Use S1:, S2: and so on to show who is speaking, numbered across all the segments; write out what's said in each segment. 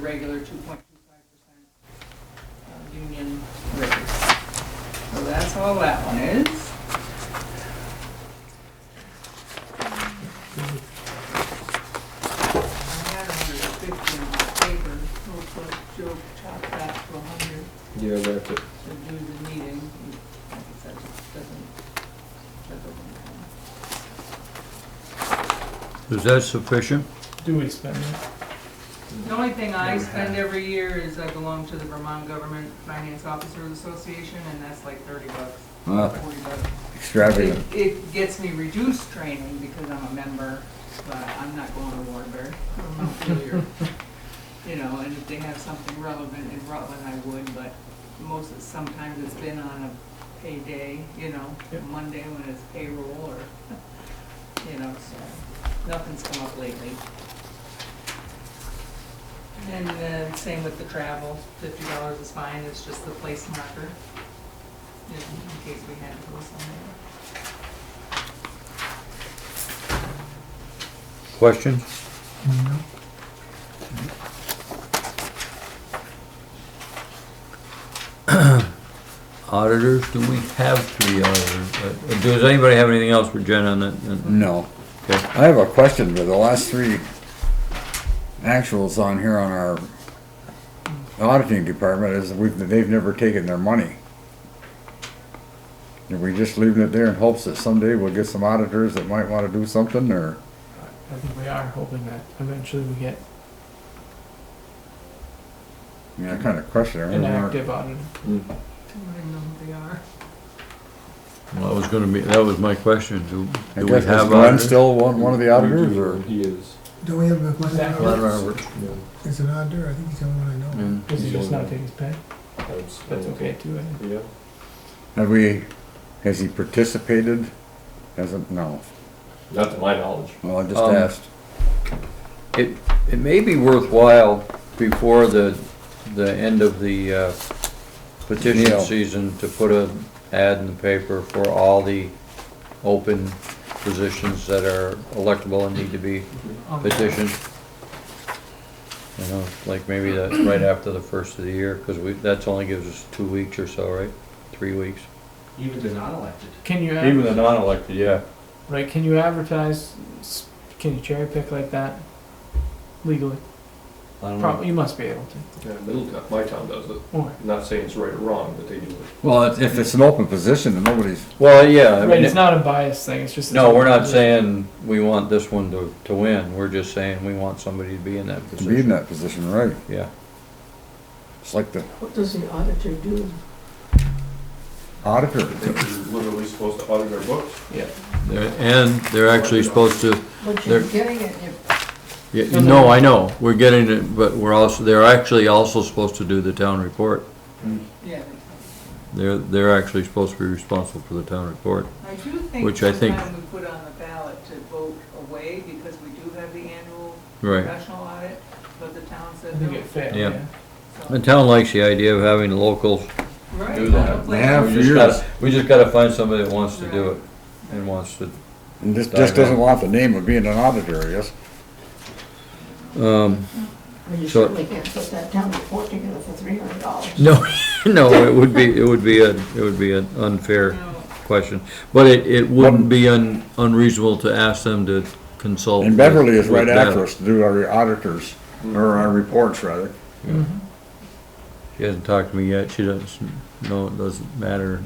S1: regular 2.25% uh, union raise. So that's all that one is. I had 150 in my paper, we'll put, Joe chop that to 100
S2: Yeah, that's it.
S1: to do the meeting. Like I said, it doesn't, that doesn't count.
S3: Is that sufficient?
S4: Do we spend it?
S1: The only thing I spend every year is I belong to the Vermont Government Finance Officers Association, and that's like thirty bucks,
S3: Ah,
S1: forty bucks. It,
S3: Extravagant.
S1: it gets me reduced training because I'm a member, but I'm not going to Warburg or Montpelier. You know, and if they have something relevant in Rutland, I would, but most, sometimes it's been on a payday, you know,
S4: Yep.
S1: Monday when it's payroll or, you know, so, nothing's come up lately. And then same with the travel, fifty dollars is fine, it's just the place marker, in in case we had to go somewhere.
S3: Questions? Auditors, do we have three auditors? Uh, Does anybody have anything else for Jen on that? Uh,
S2: No.
S3: Okay.
S2: I have a question, but the last three actuals on here on our auditing department is we've, they've never taken their money. Are we just leaving it there in hopes that someday we'll get some auditors that might wanna do something, or?
S4: I think we are hoping that eventually we get
S2: I mean, I kinda question it. I
S4: an
S2: remember-
S4: active audit.
S1: I don't even know who they are.
S3: Well, that was gonna be, that was my question. Do
S2: I
S3: do we
S2: guess, is
S3: have
S2: Glenn
S3: auditors?
S2: still one, one of the auditors, or?
S5: He is.
S6: Don't we have a question?
S4: Zach
S2: I don't
S4: Woods?
S2: remember.
S5: yeah.
S6: It's an auditor, I think he's the only one I know.
S4: Does he
S5: He's
S4: just
S5: the
S4: not
S5: only
S4: take his pay?
S5: one. That's, uh,
S4: That's okay too, eh? I think.
S5: Yeah.
S2: Have we, has he participated? Hasn't, no.
S5: Not to my knowledge.
S2: Well, I just
S3: Um,
S2: asked.
S3: It, it may be worthwhile before the, the end of the uh, petition
S2: Deal.
S3: season to put a ad in the paper for all the open positions that are electable and need to be
S4: Um,
S3: petitioned. You know, like maybe that's right after the first of the year, because we, that's only gives us two weeks or so, right? Three weeks.
S7: Even the non-elected.
S4: Can you,
S3: Even the
S4: ad-
S3: non-elected, yeah.
S4: right, can you advertise, s- can you cherry pick like that legally?
S3: Mm-hmm. I don't know.
S4: Probably, you must be able to.
S5: Yeah, middle town, my town does it.
S4: Or,
S5: I'm not saying it's right or wrong, but they do it.
S2: Well, if- if it's an open position and nobody's
S3: Well, yeah, I
S4: right,
S3: mean,
S4: it's not a bias thing, it's just.
S3: No, we're not saying we want this one to, to win, we're just saying we want somebody to be in that
S2: to be in
S3: position.
S2: that position, right?
S3: Yeah,
S2: It's like the
S8: What does the auditor do?
S2: auditor.
S5: They're literally supposed to audit our books.
S4: Yeah.
S3: They're- and they're actually supposed to,
S8: But you're
S3: There-
S8: getting it, you
S3: yeah, you know, I know, we're getting it, but we're also, they're actually also supposed to do the town report.
S1: Yeah.
S3: They're, they're actually supposed to be responsible for the town report.
S1: I do think
S3: Which I think-
S1: sometime we put on the ballot to vote away because we do have the annual
S3: Right.
S1: professional audit, but the town
S4: I
S1: said
S4: think
S1: no.
S4: it failed,
S3: Yeah.
S4: yeah.
S3: The
S1: so-
S3: town likes the idea of having the locals
S1: Right,
S3: do
S1: not a
S3: that.
S1: place-
S2: Yeah,
S3: We
S2: for
S3: just
S2: years.
S3: gotta, we just gotta find somebody that wants to do it and wants to
S2: And just, just doesn't want the name of being an auditor, I guess.
S3: Um,
S8: well, you
S3: So-
S8: certainly can't put that town report together for three hundred dollars.
S3: no, no, it would be, it would be a, it would be an unfair
S1: No,
S3: question. But it, it wouldn't be un, unreasonable to ask them to consult.
S2: And Beverly is
S3: with-
S2: right
S3: with
S2: after
S3: them.
S2: us to do our auditors, or our reports rather.
S3: She hasn't talked to me yet, she doesn't, no, it doesn't matter.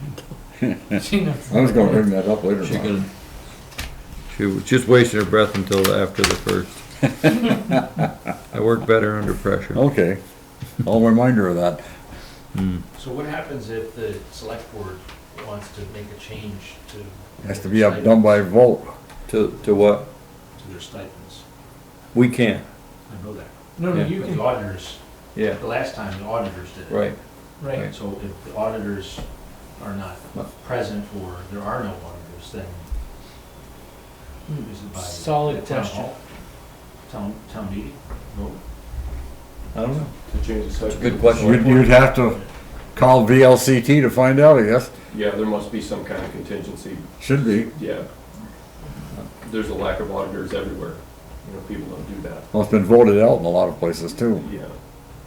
S4: She knows.
S2: I was gonna bring that up later.
S3: She
S2: Bob.
S3: can, she was just wasting her breath until after the first. I work better under pressure.
S2: Okay, I'll remind her of that.
S7: So what happens if the select board wants to make a change to?
S2: Has to be up, done by vote.
S3: To, to what?
S7: To their stipends.
S3: We can't.
S7: I know that.
S4: No, no,
S3: Yeah.
S4: you
S7: But the
S4: can,
S7: auditors,
S3: Yeah.
S7: the last time the auditors did it.
S3: Right,
S4: right,
S7: So if the auditors are not present or there are no auditors, then is it by?
S4: Hmm. Solid
S7: the town
S4: question.
S7: hall? Town, town meeting, vote?
S3: I don't know.
S5: To change the stipend.
S3: Good question.
S2: You'd, you'd have to call VLCT to find out, I guess.
S5: Yeah, there must be some kind of contingency.
S2: Should be.
S5: Yeah. There's a lack of auditors everywhere. You know, people don't do that.
S2: Well, it's been voted out in a lot of places too.
S5: Yeah.